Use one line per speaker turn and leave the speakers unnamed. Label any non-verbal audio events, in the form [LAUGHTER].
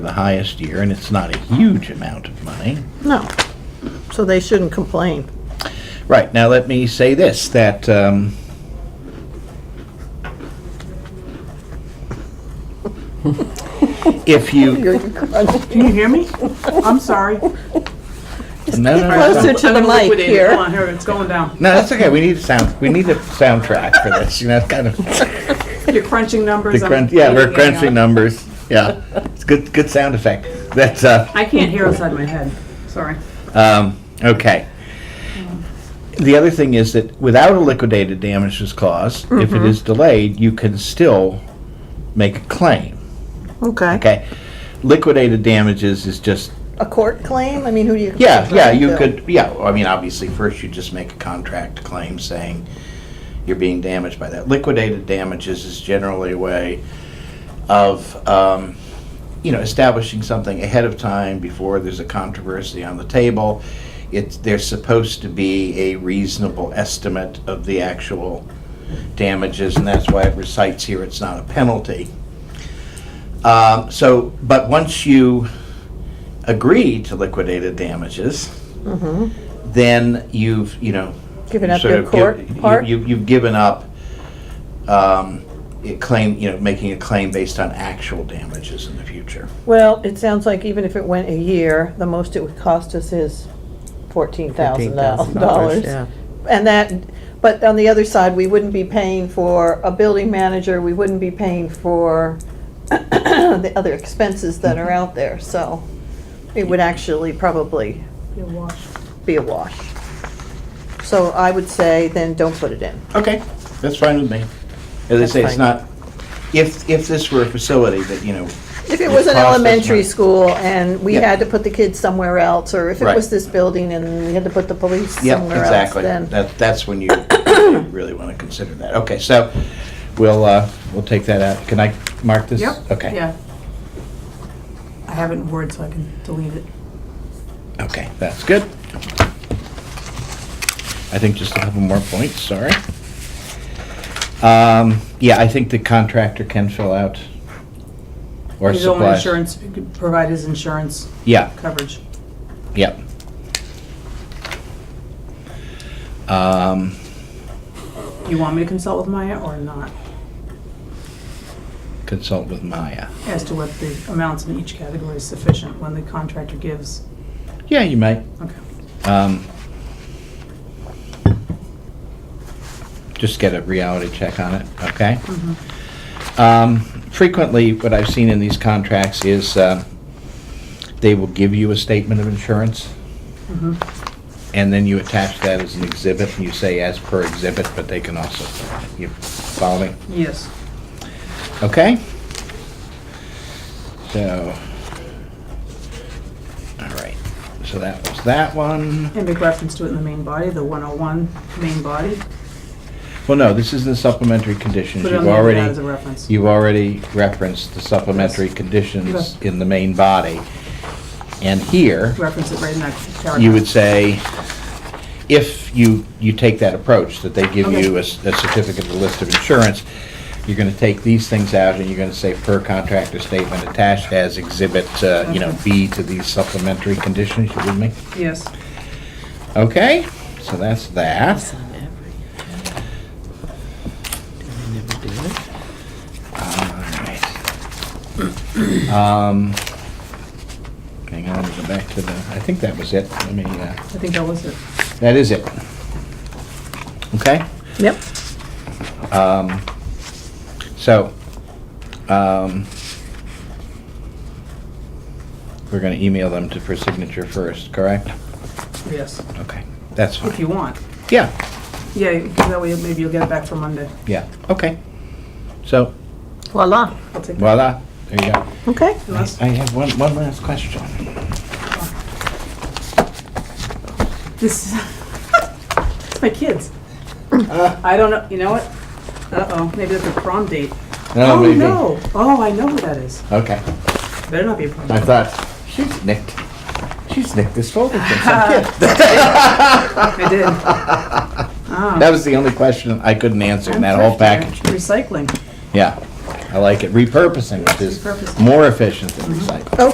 the highest year, and it's not a huge amount of money.
No. So they shouldn't complain.
Right, now let me say this, that, um, if you,
Can you hear me? I'm sorry.
no, no, no,
Closer
no,
to
Let
the
me
mic
liquidate it. Come
here.
on, here, it's going down.
no, that's okay, we need a sound, we need a soundtrack for this, you know, it's kind of,
You're crunching
the
numbers. I'm
crunch, yeah, we're
leaving it on.
crunching numbers, yeah, it's good, good sound effect, that's, uh,
I can't hear outside my head, sorry.
Um, okay. The other thing is that without a liquidated damages clause, if it is delayed, you can still make a claim.
Okay.
Okay. Liquidated damages is just
A court claim? I mean, who do you?
yeah, yeah. You
Yeah.
could yeah. I mean, obviously, first you just make a contract claim saying you're being damaged by that. Liquidated damages is generally a way of um, you know establishing something ahead of time before there's a controversy on the table. It's there's supposed to be a reasonable estimate of the actual damages, and that's why it recites here it's not a penalty. Um, so, but once you agree to liquidated damages, then you've, you know.
Mm-hmm. Given
you've
up
sort
your
of give-
court
you-
part?
you- You've given up um, a claim, you know, making a claim based on actual damages in the future.
Well, it sounds like even if it went a year, the most it would cost us is fourteen thousand dollars.
yeah.
And that, but on the other side, we wouldn't be paying for a building manager, we wouldn't be paying for [COUGHS] the other expenses that are out there, so it would actually probably be a wash. So I would say then don't put it in.
Okay, that's fine with me. As I say, it's
fine.
not, if, if this were a facility that, you know,
If it was an
cost us money.
elementary school and we
Yeah.
had to put the kids somewhere else, or if it
Right.
was this building and we had to put the police
Yep,
somewhere else,
exactly.
then.
That, that's when you [COUGHS] really want to consider that. Okay, so we'll, uh, we'll take that out. Can I mark this?
Yep.
Okay.
Yeah. I have it in Word, so I can delete it.
Okay, that's good. I think just a couple more points, sorry. Um, yeah, I think the contractor can fill out or
His own
supply.
insurance, he could provide his insurance
Yeah,
coverage.
yeah. Um,
You want me to consult with Maya or not,
consult with Maya.
as to what the amounts in each category is sufficient when the contractor gives?
Yeah, you might.
Okay,
Um, just get a reality check on it, okay?
Mm-hmm.
Um, frequently, what I've seen in these contracts is, uh, they will give you a statement of insurance,
Mm-hmm.
and then you attach that as an exhibit, and you say as per exhibit, but they can also, you follow me?
yes.
Okay? So, all right, so that was that one.
And make reference to it in the main body, the 101 main body.
Well, no, this is the supplementary conditions.
Put it on
You've
the agenda as a
already,
reference.
you've already referenced the supplementary conditions
Okay.
in the main body. And here,
Reference it right in that paragraph.
you would say, if you, you take that approach, that they give
Okay.
you a s- a certificate of list of insurance, you're gonna take these things out and you're gonna say per contractor statement attached as exhibit, uh, you know, B to these supplementary conditions, you with me?
Yes.
Okay, so that's that. Alright. Um, Hang on, let me go back to the, I think that was it. Let me, uh,
I think that was it.
that is it. Okay?
Yep.
Um, So, um, we're going to email them to, for signature first, correct?
Yes,
Okay, that's
if you
fine.
want.
Yeah,
Yeah, 'cause that way maybe you'll get it back for Monday.
yeah, okay. So,
Voila.
I'll take that.
voila, there you go.
Okay.
Unless-
I have one, one last question.
This, [LAUGHS] it's my kids. I don't know, you know what? Uh-oh, maybe that's a prom date.
No,
Oh,
maybe.
no. Oh, I know who that is.
Okay,
Better not be a prom
I
date.
thought, she's nicked, she's nicked this folder from some kid.
I
[LAUGHS]
did. Ah,
That was the only question I couldn't answer in that whole package.
Recycling.
Yeah, I like it. Repurposing, which is
Repurposing.
more efficient than recycling.